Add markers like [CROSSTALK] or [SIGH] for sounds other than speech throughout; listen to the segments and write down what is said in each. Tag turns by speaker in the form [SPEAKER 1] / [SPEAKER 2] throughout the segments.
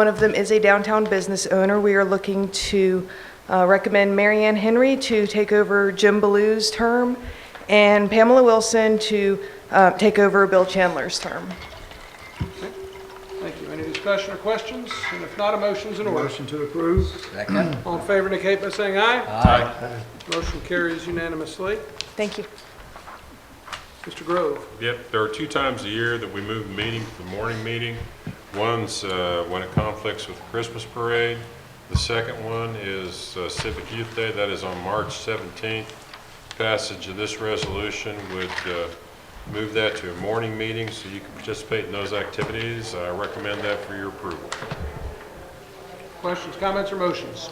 [SPEAKER 1] One of them is a downtown business owner. We are looking to uh, recommend Mary Ann Henry to take over Jim Ballou's term and Pamela Wilson to uh, take over Bill Chandler's term.
[SPEAKER 2] Thank you. Any discussion or questions? And if not, a motion's in order.
[SPEAKER 3] Motion to approve.
[SPEAKER 2] All in favor indicate by saying aye. Aye. Motion carries unanimously.
[SPEAKER 1] Thank you.
[SPEAKER 2] Mr. Grove,
[SPEAKER 4] Yep, there are two times a year that we move the meeting to the morning meeting. One's uh, when it conflicts with the Christmas parade. The second one is uh, Civic Youth Day, that is on March 17th. Passage of this resolution would uh, move that to a morning meeting so you can participate in those activities. I recommend that for your approval.
[SPEAKER 2] questions, comments, or motions?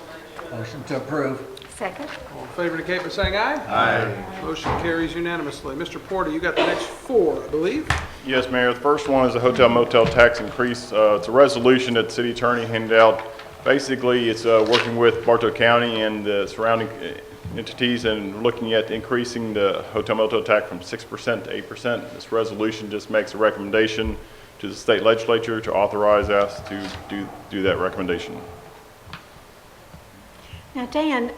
[SPEAKER 3] Motion to approve.
[SPEAKER 5] Second?
[SPEAKER 2] All in favor indicate by saying aye. Aye. Motion carries unanimously. Mr. Porter, you got the next four, I believe.
[SPEAKER 6] Yes, Mayor. The first one is the hotel motel tax increase. Uh, It's a resolution that the city attorney handed out. Basically, it's uh, working with Bartow County and the surrounding uh, entities and looking at increasing the hotel motel tax from 6% to 8%. This resolution just makes a recommendation to the state legislature to authorize us to do do that recommendation.
[SPEAKER 5] Now, Dan,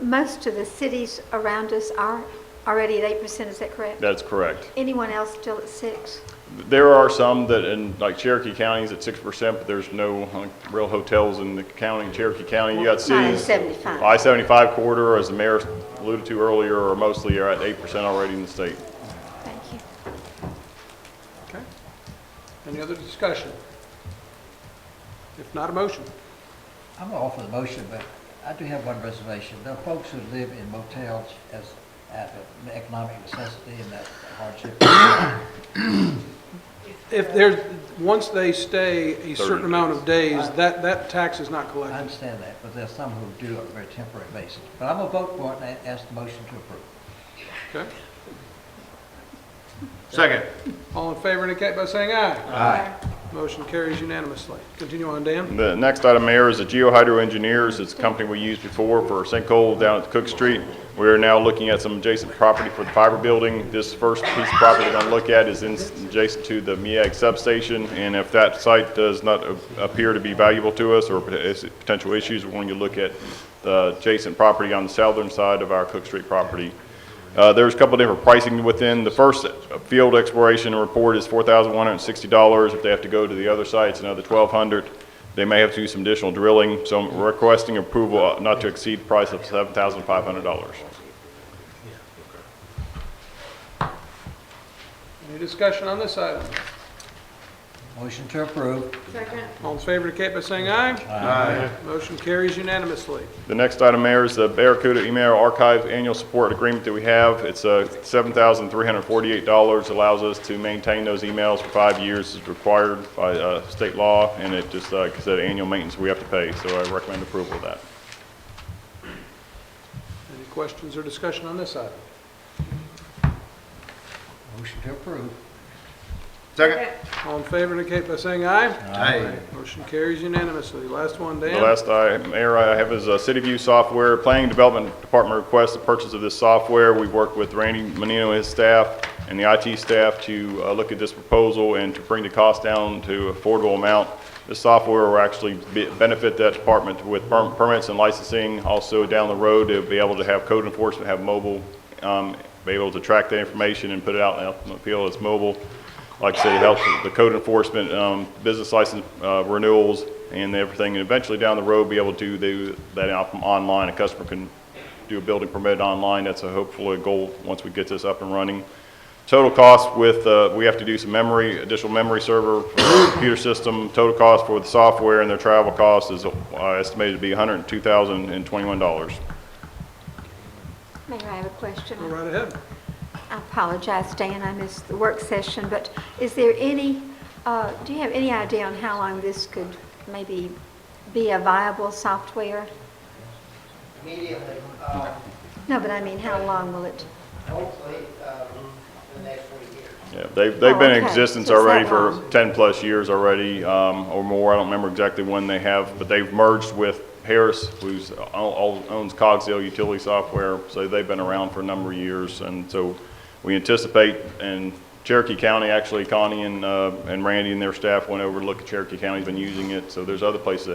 [SPEAKER 5] most of the cities around us are already at eight percent, is that correct?
[SPEAKER 6] That's correct.
[SPEAKER 5] Anyone else still at six?
[SPEAKER 6] There are some that, in like Cherokee County is at six percent, but there's no like, real hotels in the county, Cherokee County. You got
[SPEAKER 5] Not in
[SPEAKER 6] cities.
[SPEAKER 5] 75.
[SPEAKER 6] I-75 corridor, as the mayor alluded to earlier, are mostly are at eight percent already in the state.
[SPEAKER 5] Thank you.
[SPEAKER 2] Okay. Any other discussion? If not, a motion.
[SPEAKER 3] I'm gonna offer the motion, but I do have one reservation. There are folks who live in motels as, as an economic necessity and that hardship. [COUGHS]
[SPEAKER 2] If there's, once they stay a certain amount of days, that, that tax is not
[SPEAKER 3] I
[SPEAKER 2] collected.
[SPEAKER 3] understand that, but there's some who do it on a very temporary basis. But I'm gonna vote for it and ask the motion to approve.
[SPEAKER 2] Okay.
[SPEAKER 7] Second.
[SPEAKER 2] All in favor indicate by saying aye.
[SPEAKER 3] Aye.
[SPEAKER 2] Motion carries unanimously. Continue on, Dan.
[SPEAKER 6] The next item, Mayor, is the GeoHydro Engineers. It's a company we used before for sinkhole down at Cook Street. We are now looking at some adjacent property for the fiber building. This first piece of property we're going to look at is in- adjacent to the MEAG substation, and if that site does not a- appear to be valuable to us or pot- is- potential issues, we're going to look at the adjacent property on the southern side of our Cook Street property. Uh, There's a couple different pricing within. The first field exploration report is $4,160. If they have to go to the other sites, another $1,200. They may have to do some additional drilling, so I'm requesting approval uh, not to exceed price of $7,500.
[SPEAKER 2] Any discussion on this item?
[SPEAKER 3] Motion to approve.
[SPEAKER 2] All in favor indicate by saying aye. Aye. Motion carries unanimously.
[SPEAKER 6] The next item, Mayor, is the Barracuda Email Archive Annual Support Agreement that we have. It's uh, $7,348, allows us to maintain those emails for five years as required by uh, state law, and it just, uh, like I said, annual maintenance we have to pay, so I recommend approval of that.
[SPEAKER 2] Any questions or discussion on this item?
[SPEAKER 3] Motion to approve.
[SPEAKER 7] Second.
[SPEAKER 2] All in favor indicate by saying aye.
[SPEAKER 7] Aye.
[SPEAKER 2] Motion carries unanimously. Last one, Dan.
[SPEAKER 6] The last item, Mayor, I have is uh, CityView Software. Planning Development Department requests the purchase of this software. We've worked with Randy Menino and his staff and the IT staff to uh, look at this proposal and to bring the cost down to affordable amount. This software will actually be- benefit that department with per- permits and licensing. Also, down the road, they'll be able to have code enforcement, have mobile, um, be able to track the information and put it out in the open field as mobile like I say, helps with the code enforcement, um, business license uh, renewals and everything, and eventually down the road, be able to do that out from online. A customer can do a building permit online. That's a hopefully a goal once we get this up and running. Total cost with, uh, we have to do some memory, additional memory server for the computer system. Total cost for the software and their travel cost is uh, estimated to be $102,021.
[SPEAKER 5] Mayor, I have a question.
[SPEAKER 2] Go right ahead.
[SPEAKER 5] I apologize, Dan, I missed the work session, but is there any, uh, do you have any idea on how long this could maybe be a viable software?
[SPEAKER 8] immediately, um,
[SPEAKER 5] No, but I mean, how long will it?
[SPEAKER 8] hopefully, um, the next week here.
[SPEAKER 6] Yeah, they've, they've been
[SPEAKER 5] Oh,
[SPEAKER 6] in
[SPEAKER 5] okay.
[SPEAKER 6] existence
[SPEAKER 5] So it's that
[SPEAKER 6] already for
[SPEAKER 5] long.
[SPEAKER 6] 10-plus years already, um, or more, I don't remember exactly when they have, but they've merged with Harris, who's, o- o- owns Cogsdale Utility Software, so they've been around for a number of years, and so we anticipate and Cherokee County, actually Connie and, uh, and Randy and their staff went over to look at Cherokee County's been using it, so there's other places that